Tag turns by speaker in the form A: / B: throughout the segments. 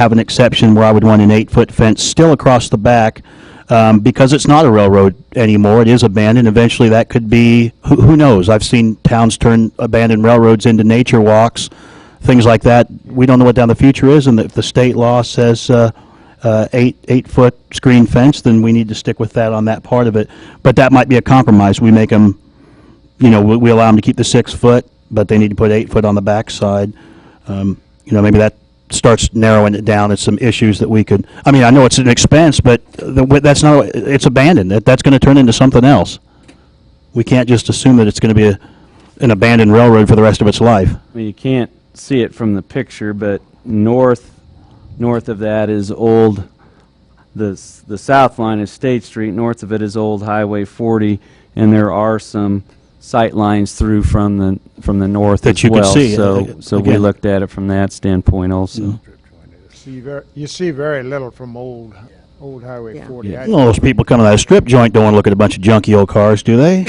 A: have an exception where I would want an eight-foot fence still across the back, um, because it's not a railroad anymore, it is abandoned, eventually that could be, who, who knows? I've seen towns turn abandoned railroads into nature walks, things like that. We don't know what down the future is, and if the state law says, uh, uh, eight, eight-foot screen fence, then we need to stick with that on that part of it. But that might be a compromise, we make them, you know, we, we allow them to keep the six foot, but they need to put eight foot on the backside. Um, you know, maybe that starts narrowing it down. It's some issues that we could, I mean, I know it's an expense, but the, wa- that's not, it's abandoned. That, that's gonna turn into something else. We can't just assume that it's gonna be a, an abandoned railroad for the rest of its life.
B: Well, you can't see it from the picture, but north, north of that is old, the, s- the south line is State Street, north of it is Old Highway 40, and there are some sight lines through from the, from the north
A: That
B: as
A: you could
B: well.
A: see, uh,
B: So, so we
A: again.
B: looked at it from that standpoint also.
C: See ver, you see very little from old, old Highway
D: Yeah.
C: forty.
B: Yeah.
C: I-
A: You know, those people coming out of that strip joint don't want to look at a bunch of junky old cars, do they?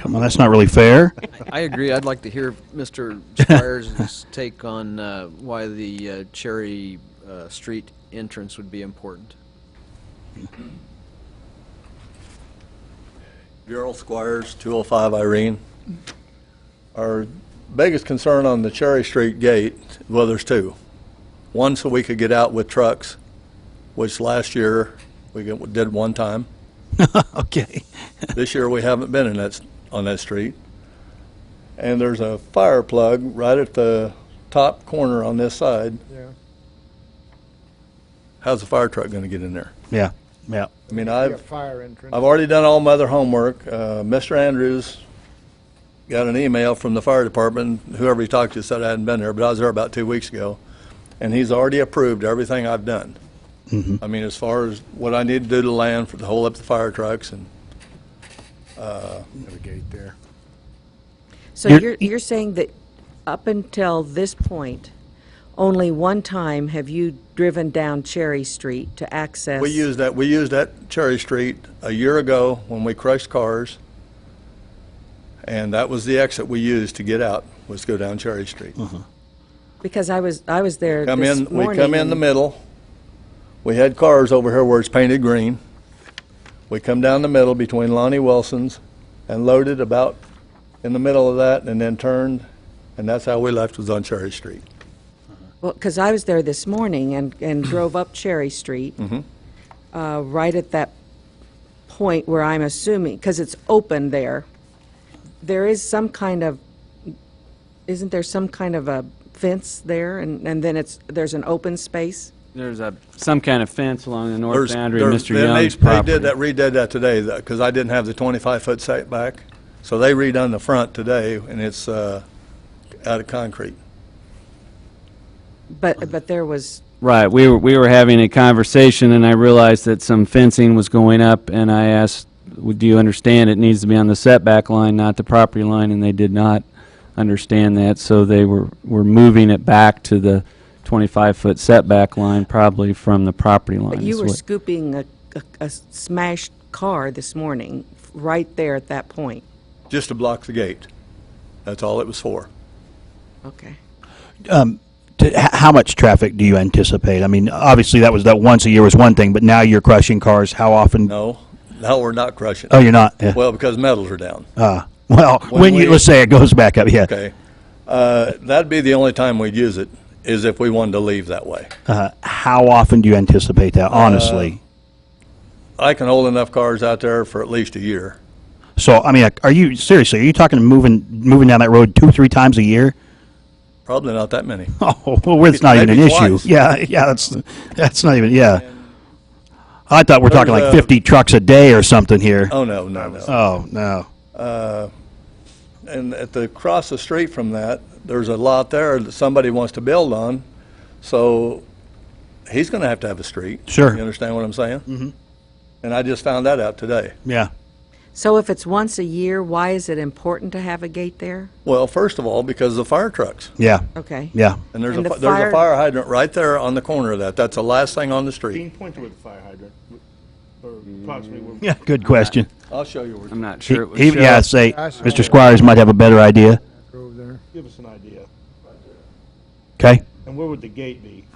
A: Come on, that's not really fair.
E: I agree. I'd like to hear Mr. Squires' take on uh, why the uh, Cherry uh, Street entrance would be important.
F: Gerald Squires, 205 Irene. Our biggest concern on the Cherry Street gate, well, there's two. One, so we could get out with trucks, which last year we get- did one time.
A: Okay.
F: This year, we haven't been in that, s- on that street. And there's a fire plug right at the top corner on this side.
C: Yeah.
F: How's the fire truck going to get in there?
A: Yeah, yeah.
F: I mean,
C: Be a
F: I've,
C: fire entrance.
F: I've already done all my other homework. Uh, Mr. Andrews got an email from the fire department, whoever he talked to said I hadn't been there, but I was there about two weeks ago, and he's already approved everything I've done. I mean, as far as what I need to do to land for to hold up the fire trucks and,
C: Have a gate there.
D: So
A: You're-
D: you're, you're saying that up until this point, only one time have you driven down Cherry Street to access?
F: we used that, we used that Cherry Street a year ago when we crushed cars, and that was the exit we used to get out, was go down Cherry Street.
D: Because I was, I was there
F: Come
D: this
F: in,
D: morning.
F: we come in the
D: and-
F: middle. We had cars over here where it's painted green. We come down the middle between Lonnie Wilson's and loaded about in the middle of that and then turned, and that's how we left was on Cherry Street.
D: Well, because I was there this morning and, and drove up Cherry Street,
F: Mm-hmm.
D: uh, right at that point where I'm assuming, because it's open there, there is some kind of, isn't there some kind of a fence there, and, and then it's, there's an open space?
B: There's a, some kind of fence along the north
F: There's-
B: boundary of
F: there's-
B: Mr.
F: they- they-
B: Young's property.
F: They did that, redid that today, because I didn't have the 25-foot setback. So they redone the front today, and it's uh, out of concrete.
D: But, but there was,
B: Right, we were, we were having a conversation, and I realized that some fencing was going up, and I asked, "W- do you understand it needs to be on the setback line, not the property line, and they did not understand that, so they were, were moving it back to the 25-foot setback line, probably from the property line.
D: You
B: is
D: were
B: what-
D: scooping a, a, a smashed car this morning, right there at that point.
F: Just to block the gate. That's all it was for.
D: Okay.
A: T- h- How much traffic do you anticipate? I mean, obviously, that was, that once a year was one thing, but now you're crushing cars, how often?
F: No, now we're not crushing.
A: Oh, you're not? Yeah.
F: Well, because metals are down.
A: Uh, Well, when
F: we-
A: you, let's say it goes back up, yeah.
F: Okay. Uh, That'd be the only time we'd use it, is if we wanted to leave that way.
A: Uh, How often do you anticipate that,
F: Uh,
A: honestly?
F: I can hold enough cars out there for at least a year.
A: So, I mean, like, are you, seriously, are you talking moving, moving down that road two, three times a year?
F: Probably not that many.
A: Oh, well, it's not even an
F: Maybe
A: issue.
F: twice.
A: Yeah, yeah, that's, that's not even, yeah. I thought we're talking like
F: There's a-
A: 50 trucks a day or something here.
F: Oh, no, no, no.
A: Oh, no.
F: And at the, across the street from that, there's a lot there that somebody wants to build on, so he's gonna have to have a street.
A: Sure.
F: You understand what I'm saying? Mm-hmm. And I just found that out today.
A: Yeah.
D: So if it's once a year, why is it important to have a gate there?
F: Well, first of all, because of the fire trucks.
A: Yeah.
D: Okay.
A: Yeah.
F: And there's a,
D: And the
F: fi- there's
D: fire-
F: a fire hydrant right there on the corner of that. That's the last thing on the
C: Dean,
F: street.
C: point to where the fire hydrant, or approximately
F: Mm.
C: where.
A: Yeah. Good question.
F: I'll show you where.
B: I'm not sure it was
A: He-
B: shown.
A: yeah, say,
C: I see.
A: Mr. Squires might have a better idea.
C: Give us an idea.
A: Okay.
C: And where would the gate be?